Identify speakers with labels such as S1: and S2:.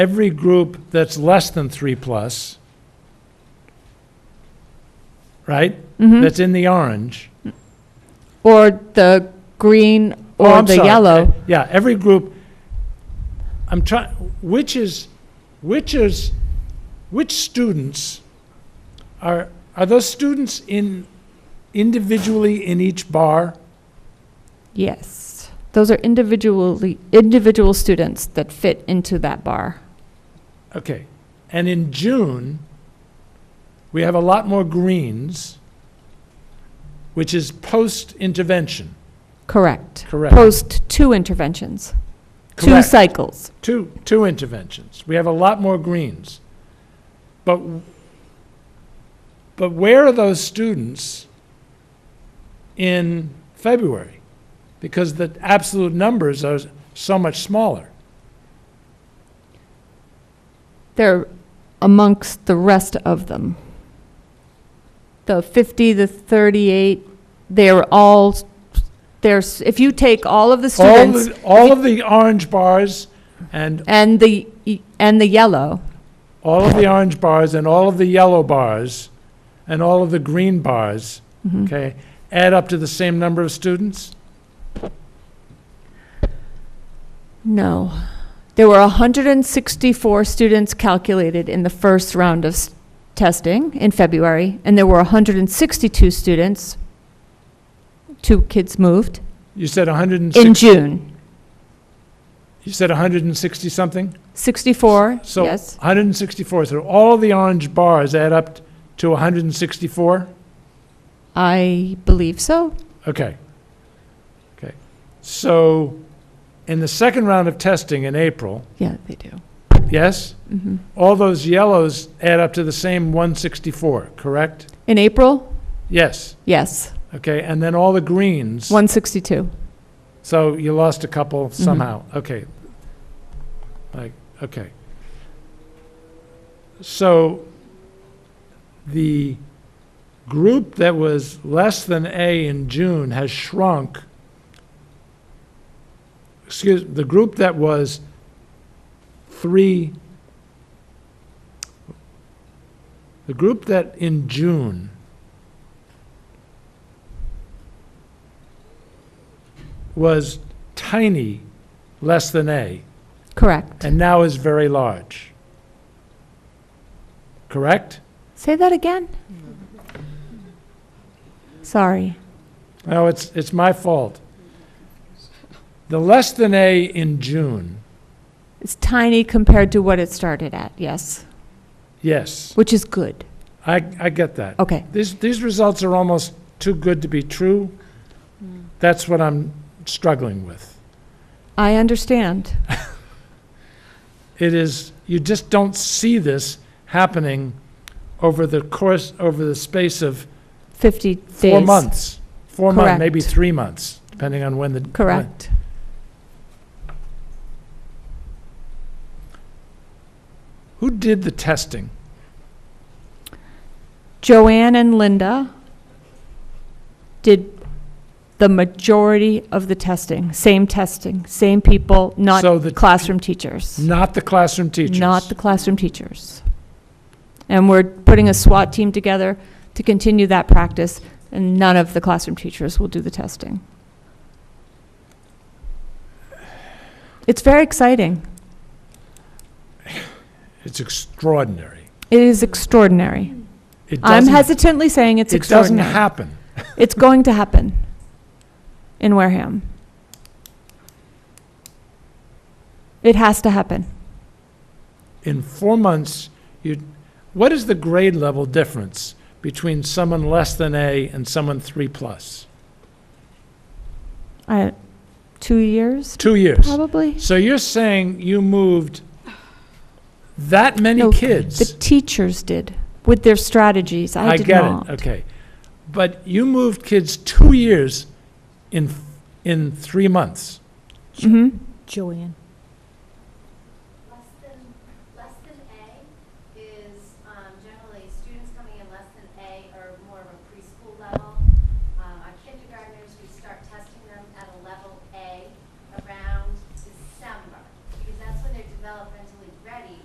S1: every group that's less than three plus, right?
S2: Hmm?
S1: That's in the orange.
S2: Mm-hmm. Or the green
S1: Oh,
S2: or
S1: I'm
S2: the
S1: sorry.
S2: yellow.
S1: Yeah, every group, I'm trying, which is, which is, which students are, are those students in, individually in each bar?
S2: Yes. Those are individually, individual students that fit into that bar.
S1: Okay, and in June, we have a lot more greens, which is post-intervention,
S2: Correct.
S1: correct?
S2: Post two interventions, two
S1: Correct.
S2: cycles.
S1: Two, two interventions. We have a lot more greens. But, but where are those students in February? Because the absolute numbers are so much smaller.
S2: They're amongst the rest of them. The 50, the 38, they're all, there's, if you take all of the
S1: All,
S2: students
S1: the- all of the orange bars and
S2: and the, and the yellow,
S1: all of the orange bars and all of the yellow bars and all of the green bars,
S2: Mm-hmm.
S1: okay, add up to the same number of students?
S2: No. There were 164 students calculated in the first round of s- testing in February, and there were 162 students, two kids moved,
S1: You said
S2: in
S1: 160,
S2: June.
S1: you said 160 something?
S2: 64,
S1: So
S2: yes,
S1: 164, so all the orange bars add up to 164?
S2: I believe so.
S1: Okay. Okay. So in the second round of testing in April,
S2: Yeah, they do.
S1: yes?
S2: Mm-hmm.
S1: All those yellows add up to the same 164, correct?
S2: In April,
S1: Yes.
S2: yes,
S1: Okay, and then all the greens.
S2: 162.
S1: So you lost a couple somehow. Okay. Like, okay. So the group that was less than A in June has shrunk. Excuse, the group that was three, the group that in June was tiny, less than A,
S2: Correct.
S1: and now is very large. Correct?
S2: Say that again? Sorry.
S1: No, it's, it's my fault. The less than A in June,
S2: It's tiny compared to what it started at, yes,
S1: yes,
S2: which is good.
S1: I, I get that.
S2: Okay.
S1: These, these results are almost too good to be true. That's what I'm struggling with.
S2: I understand.
S1: It is, you just don't see this happening over the course, over the space of
S2: 50 days.
S1: Four months. Four months, maybe
S2: Correct.
S1: three months, depending on when the. when-
S2: Correct.
S1: Who did the testing?
S2: Joanne and Linda did the majority of the testing, same testing, same people, not
S1: So the-
S2: classroom teachers.
S1: Not the classroom teachers?
S2: Not the classroom teachers. And we're putting a SWAT team together to continue that practice, and none of the classroom teachers will do the testing. It's very exciting.
S1: It's extraordinary.
S2: It is extraordinary.
S1: It
S2: I'm
S1: doesn't-
S2: hesitantly saying it's
S1: It doesn't
S2: extraordinary.
S1: happen.
S2: It's going to happen in Wareham. It has to happen.
S1: In four months, you, what is the grade level difference between someone less than A and someone three plus?
S2: I, two years,
S1: Two years.
S2: probably?
S1: So you're saying you moved that many
S2: No,
S1: kids?
S2: The teachers did with their strategies. I did
S1: get
S2: not.
S1: it. Okay, but you moved kids two years in in three months.
S2: Mhm.
S3: Joanne.